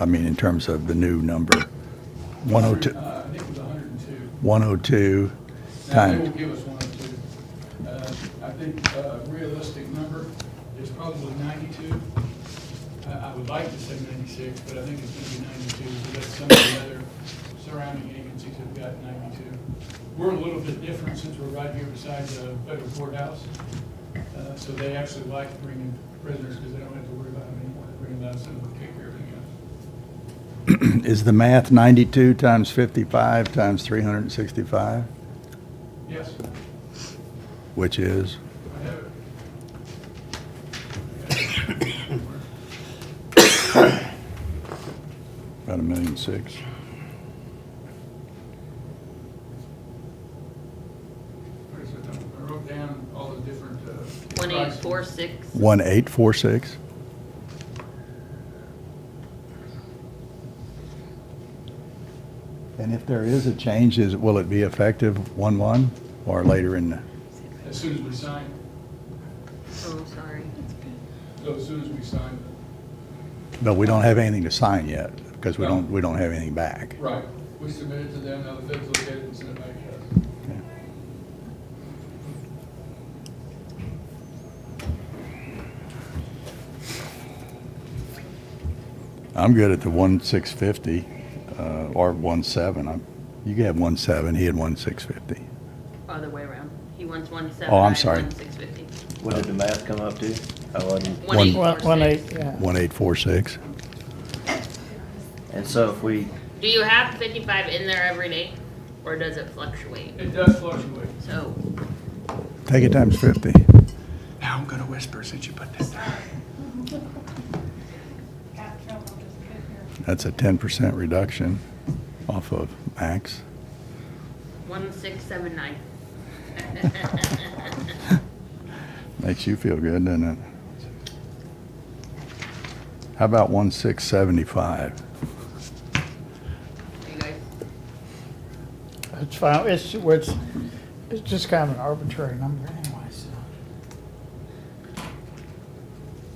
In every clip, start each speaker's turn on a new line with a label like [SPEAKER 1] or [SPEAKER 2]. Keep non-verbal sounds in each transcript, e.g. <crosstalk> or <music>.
[SPEAKER 1] I mean, in terms of the new number. 102,
[SPEAKER 2] Uh, I think it was hundred and two.
[SPEAKER 1] 102
[SPEAKER 2] Now, they
[SPEAKER 1] times. <clears throat>
[SPEAKER 2] will give us one or two. Uh, I think a realistic number is probably ninety-two. I, I would like to say ninety-six, but I think it's gonna be ninety-two, because some of the other surrounding agencies have got ninety-two. We're a little bit different since we're right here beside the federal courthouse. Uh, so they actually like bringing prisoners, because they don't have to worry about them anymore, they bring them out, so we take care of everything else.
[SPEAKER 1] Is the math 92 times 55 times 365,
[SPEAKER 2] Yes,
[SPEAKER 1] which is?
[SPEAKER 2] I have it.
[SPEAKER 1] About a million six.
[SPEAKER 2] What is it? I wrote down all the different. uh,
[SPEAKER 3] One eight four
[SPEAKER 2] prices.
[SPEAKER 3] six.
[SPEAKER 1] 1846? And if there is a change, is, will it be effective 1/1 or later in? the-
[SPEAKER 2] As soon as we sign,
[SPEAKER 3] Oh, sorry.
[SPEAKER 2] so as soon as we sign,
[SPEAKER 1] But we don't have anything to sign yet because we don't, we don't have anything back.
[SPEAKER 2] right, we submit it to them, now the feds look at it and send it back to us.
[SPEAKER 1] Okay. I'm good at the one six fifty, uh, or one seven. I'm, you could have one seven, he had one six fifty.
[SPEAKER 3] Other way around. He wants one seven.
[SPEAKER 1] Oh, I'm sorry.
[SPEAKER 3] Six fifty.
[SPEAKER 4] What did the math come up to? I wasn't.
[SPEAKER 3] One eight
[SPEAKER 5] One one
[SPEAKER 3] four
[SPEAKER 5] eight,
[SPEAKER 3] six.
[SPEAKER 5] yeah.
[SPEAKER 1] One eight four six.
[SPEAKER 4] And so if we,
[SPEAKER 3] Do you have fifty-five in there every day, or does it fluctuate?
[SPEAKER 2] It does fluctuate.
[SPEAKER 3] So,
[SPEAKER 1] Take it times fifty.
[SPEAKER 2] Now I'm gonna whisper since you put that down.
[SPEAKER 6] got in trouble just sitting here.
[SPEAKER 1] That's a ten percent reduction off of max.
[SPEAKER 3] one six seven nine. <laughs>
[SPEAKER 1] Makes you feel good, doesn't it? How about one six seventy-five?
[SPEAKER 3] You guys,
[SPEAKER 5] It's fine, it's, it's, it's just kind of an arbitrary number anyway, so.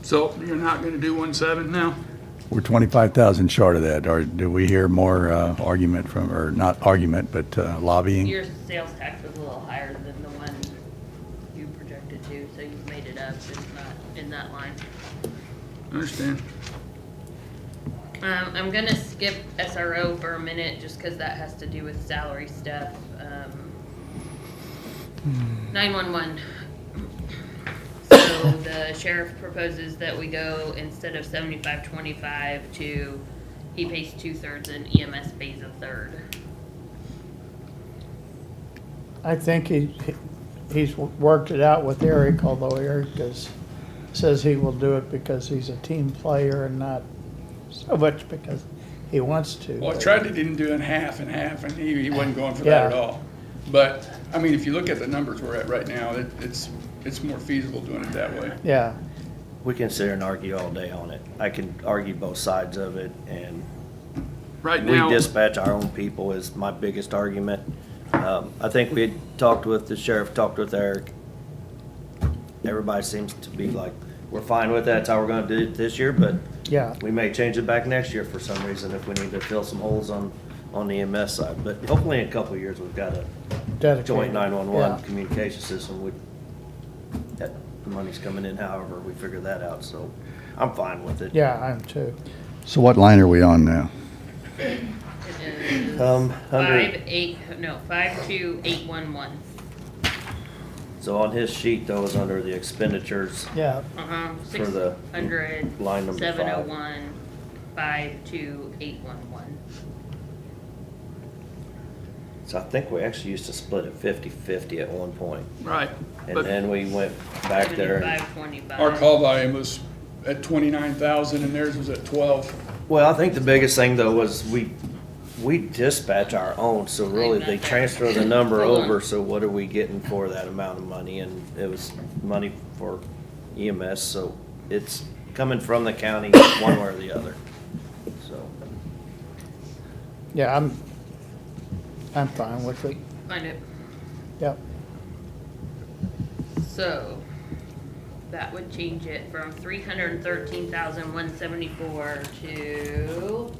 [SPEAKER 2] So you're not gonna do one seven now?
[SPEAKER 1] We're 25,000 short of that, or do we hear more uh, argument from, or not argument, but uh, lobbying?
[SPEAKER 3] your sales tax was a little higher than the one you projected to, so you've made it up. It's not in that line.
[SPEAKER 2] Understand.
[SPEAKER 3] Um, I'm gonna skip SRO for a minute, just cause that has to do with salary stuff, um. Nine-one-one. So the sheriff proposes that we go, instead of seventy-five, twenty-five, to, he pays two-thirds and EMS pays a third.
[SPEAKER 5] I think he, he- he's worked it out with Eric, although Eric is, says he will do it because he's a team player and not so much because he wants to.
[SPEAKER 2] Well, I
[SPEAKER 5] but-
[SPEAKER 2] tried to didn't do it in half and half, and he, he wasn't going for that at
[SPEAKER 5] Yeah.
[SPEAKER 2] all. But, I mean, if you look at the numbers we're at right now, it, it's, it's more feasible doing it that way.
[SPEAKER 5] Yeah,
[SPEAKER 4] we can sit and argue all day on it. I can argue both sides of it and
[SPEAKER 2] Right
[SPEAKER 4] we
[SPEAKER 2] now,
[SPEAKER 4] dispatch our own people is my biggest argument. Um, I think we had talked with the sheriff, talked with Eric. Everybody seems to be like, we're fine with that, that's how we're gonna do it this year, but
[SPEAKER 5] yeah.
[SPEAKER 4] we may change it back next year for some reason if we need to fill some holes on, on the EMS side. But hopefully in a couple of years, we've got a
[SPEAKER 5] dedicated,
[SPEAKER 4] joint
[SPEAKER 5] yeah.
[SPEAKER 4] 911 communication system, we, that, the money's coming in however we figure that out, so I'm fine with it.
[SPEAKER 5] Yeah, I am too.
[SPEAKER 1] So what line are we on now?
[SPEAKER 3] It is
[SPEAKER 4] Um,
[SPEAKER 3] Five,
[SPEAKER 4] under,
[SPEAKER 3] eight, no, five-two-eight-one-one.
[SPEAKER 4] so on his sheet though, is under the expenditures,
[SPEAKER 5] Yeah,
[SPEAKER 3] Uh-huh,
[SPEAKER 4] For
[SPEAKER 3] six
[SPEAKER 4] the
[SPEAKER 3] hundred,
[SPEAKER 4] line number five.
[SPEAKER 3] seven oh one, five-two-eight-one-one.
[SPEAKER 4] so I think we actually used to split it 50/50 at one point,
[SPEAKER 2] right.
[SPEAKER 4] and
[SPEAKER 2] but-
[SPEAKER 4] then we went back there. and-
[SPEAKER 3] Seventy-five, twenty-five.
[SPEAKER 2] Our call volume was at twenty-nine thousand and theirs was at twelve.
[SPEAKER 4] Well, I think the biggest thing though was we, we dispatch our own, so really they transfer the number
[SPEAKER 3] Hold on.
[SPEAKER 4] over, so what are we getting for that amount of money? And it was money for EMS, so it's coming from the county one way or the other, so.
[SPEAKER 5] yeah, I'm, I'm fine with it,
[SPEAKER 3] Find it.
[SPEAKER 5] yep.
[SPEAKER 3] So, that would change it from three hundred and thirteen thousand, one seventy-four to